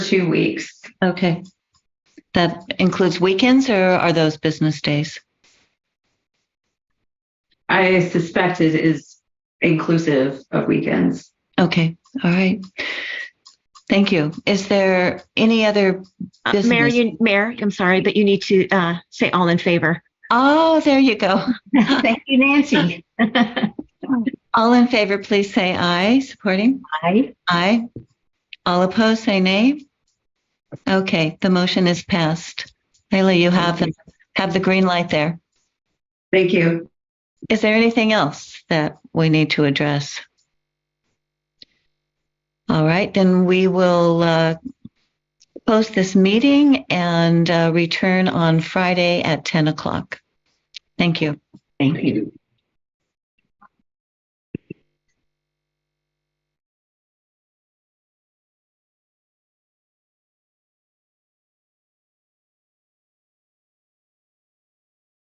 two weeks. Okay. That includes weekends or are those business days? I suspect it is inclusive of weekends. Okay, all right. Thank you. Is there any other, Uh, Business. Mayor, you, Mayor, I'm sorry, but you need to uh, say all in favor. oh, there you go. Thank you, Nancy. All in favor, please say aye. Supporting? Aye. Aye. All opposed, say nay. Okay, the motion is passed. Leila, you have, the have the green light there. Thank you. Is there anything else that we need to address? All right, then we will uh, post this meeting and uh, return on Friday at 10 o'clock. Thank you. Thank you.